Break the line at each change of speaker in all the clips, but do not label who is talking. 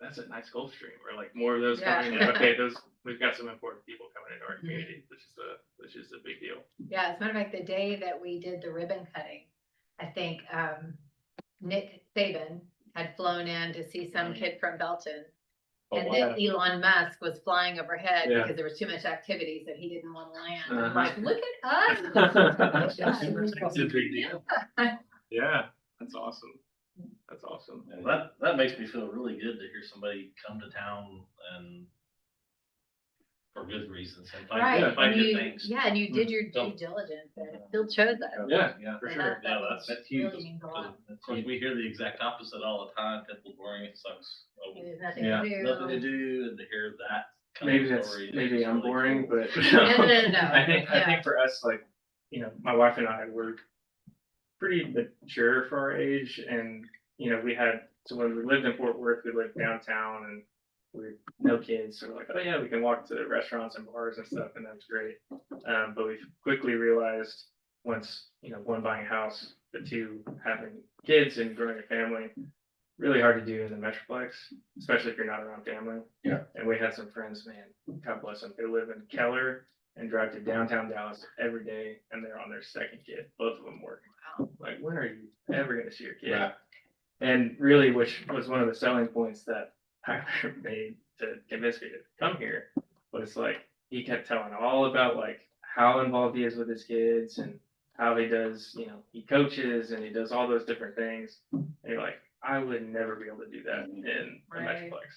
that's a nice Gulf Stream, or like more of those
Yeah.
coming in, okay, those, we've got some important people coming into our
Mhm.
community, which is a, which is a big deal.
Yeah, as a matter of fact, the day that we did the ribbon cutting, I think um Nick Saban had flown in to see some
Mhm.
kid from Belton.
Oh,
And
wow.
then Elon Musk was flying overhead
Yeah.
because there was too much activity, so he didn't want to land. I'm
Uh-huh.
Like, look at us. Oh
It's
Yeah.
a big deal. Yeah, that's awesome. That's awesome.
Well, that, that makes me feel really good to hear somebody come to town and for good reasons and
Right,
find, find
and
good
you,
things.
yeah, and you did your
Yeah.
due diligence and still chose us.
Mm-hmm. Yeah,
Yeah,
for
And
sure.
that-
Yeah,
that
that's- that's
really
huge.
means a lot.
Of course, we hear the exact opposite all the time, people boring, it sucks. Oh,
There's nothing
Yeah.
to
Nothing to
do.
do and to hear that. kind of
Maybe that's,
story is
maybe I'm
really
boring,
cool.
but.
No, no, no, no.
I think, I
Yeah.
think for us, like, you know, my wife and I were pretty mature for our age and, you know, we had, so when we lived in Fort Worth, we lived downtown and we had no kids, so we're like, oh yeah, we can walk to restaurants and bars and stuff and that's great. Um, but we quickly realized once, you know, one buying a house, the two having kids and growing a family, really hard to do in the Metroplex, especially if you're not around family.
Yeah.
And we had some friends, man, God bless them, they live in Keller and drive to downtown Dallas every day, and they're on their second kid. Both of them work.
Wow.
Like, when are you ever gonna see your kid?
Right.
And really, which was one of the selling points that Tyler made to convince me to come here, was like he kept telling all about like how involved he is with his kids and how he does, you know, he coaches and he does all those different things. And you're like, I would never be able to do that in a
Right.
Metroplex.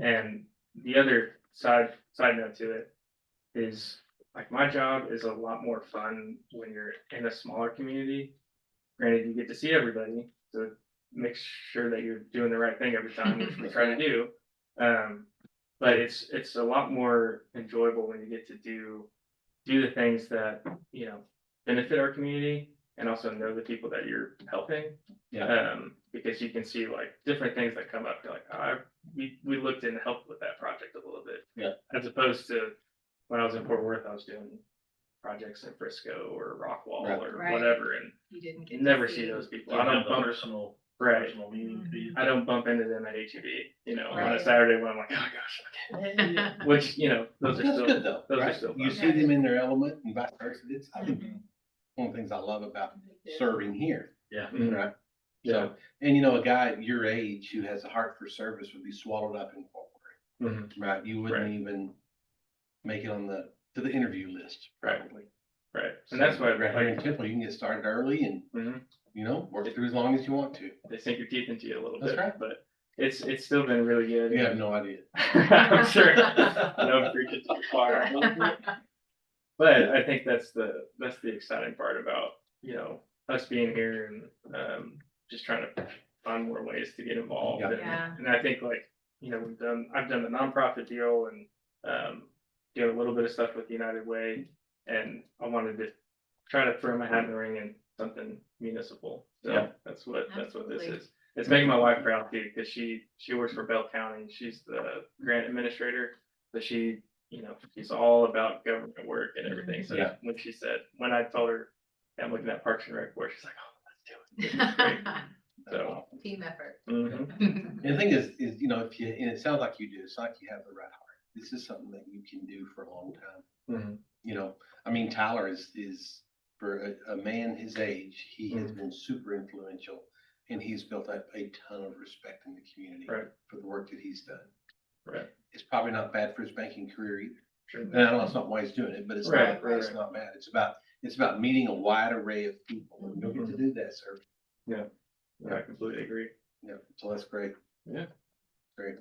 And the other side side note to it is like my job is a lot more fun when you're in a smaller community. Granted, you get to see everybody, so make sure that you're doing the right thing every time, which we try to do. Um, but it's it's a lot more enjoyable when you get to do do the things that you know benefit our community and also know the people that you're helping.
Yeah.
Um, because you can see like different things that come up. You're like, ah, we we looked and helped with that project a little bit.
Yeah.
As opposed to when I was in Fort Worth, I was doing projects in Frisco or Rockwall
Right.
or
Right.
whatever, and
You didn't get
you
to
never see those people.
Well,
I
I
don't
know
bump,
personal,
right.
personal meaning to you.
I don't bump into them at HEB, you know, on
Right.
a Saturday when I'm like, oh gosh, okay. which you know, those are
That's
still
good though,
those are
right?
still
You
fun.
see them in their element and vice versa. It's, I think,
Mhm.
one of the things I love about
Yeah.
serving here.
Yeah.
Mhm.
Right. So, and you know, a guy at your age who has a heart for service would be swallowed up in Fort Worth,
Mhm.
right? You
Right.
wouldn't even make it on the, to the interview list,
Right.
probably.
right, and that's why
Right here in
like,
Temple, you can get started early and,
Mhm.
you know, work through as long as you want to.
they sink your teeth into you a little
That's
bit,
right.
but it's it's still been really good.
You have no idea.
I'm sure. No preaching to the choir. But I think that's the, that's the exciting part about, you know, us being here and, um, just trying to find more ways to get involved.
Yeah.
And-
Yeah.
And I think like, you know, we've done, I've done the nonprofit deal and, um, doing a little bit of stuff with United Way. And I wanted to try to throw my hat in the ring in something municipal. So
Yeah.
that's what, that's what this
Absolutely.
is. It's making my wife proud too, because she, she works for Bell County. She's the grant administrator. But she, you know, she's all about government work and everything. So
Yeah.
when she said, when I told her, I'm looking at Parks and Rec board, she's like, oh, let's do it. So-
Team effort.
This is great.
And the thing is, is, you know, if you, and it sounds like you do, it's like you have the right heart. This is something that you can do for a long time.
Mhm.
you know, I mean, Tyler is, is for a, a man his age, he has
Mm-hmm.
been super influential and he's built up a ton of respect in the community
Right.
for the work that he's done.
Right.
It's probably not bad for his banking career either.
Sure.
And I know it's not why he's doing it, but it's
Right,
not,
right,
it's
right.
not bad. It's about, it's about meeting a wide array of people. and You'll get to
Mm-hmm.
do that, sir.
Yeah, I completely agree.
Yeah, so that's great.
Yeah.
Great.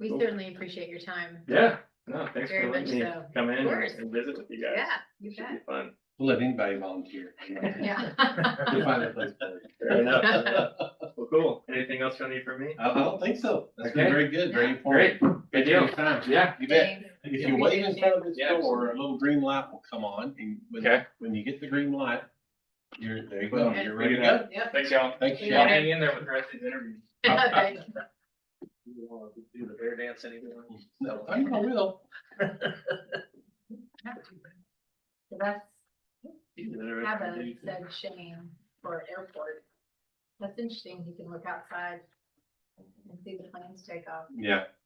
We
Cool.
certainly appreciate your time.
Yeah, no, thanks
Very
for letting me
much so.
come in
course.
and visit with you guys.
Yeah, you
Should be
bet.
fun.
We'll let anybody volunteer. you know. We'll
Yeah.
find a place for you.
Fair enough.
Yeah.
Well, cool. Anything else you need from me?
I I don't think so. That's been
Okay.
very good, very
Yeah.
informative.
Good
Thank you for
deal.
your time.
Yeah.
You bet.
Thanks.
If
Yeah.
you wait in front of this
Yeah,
door, a little green light will come on, and when,
Okay.
when you get the green light, you're, there you go,
Boom.
you're ready to
Look at
go.
Yep.
Thanks, y'all.
Thank
We
you.
Y'all
got it.
Sean.
hang in there with the rest of the interview.
Thank you.
You wanna Do the bear dance anymore?
No, I think I will.
So That's
You can do
Kevin
everything.
said Shane for airport. That's interesting. He can look outside and see the planes take off.
Yeah,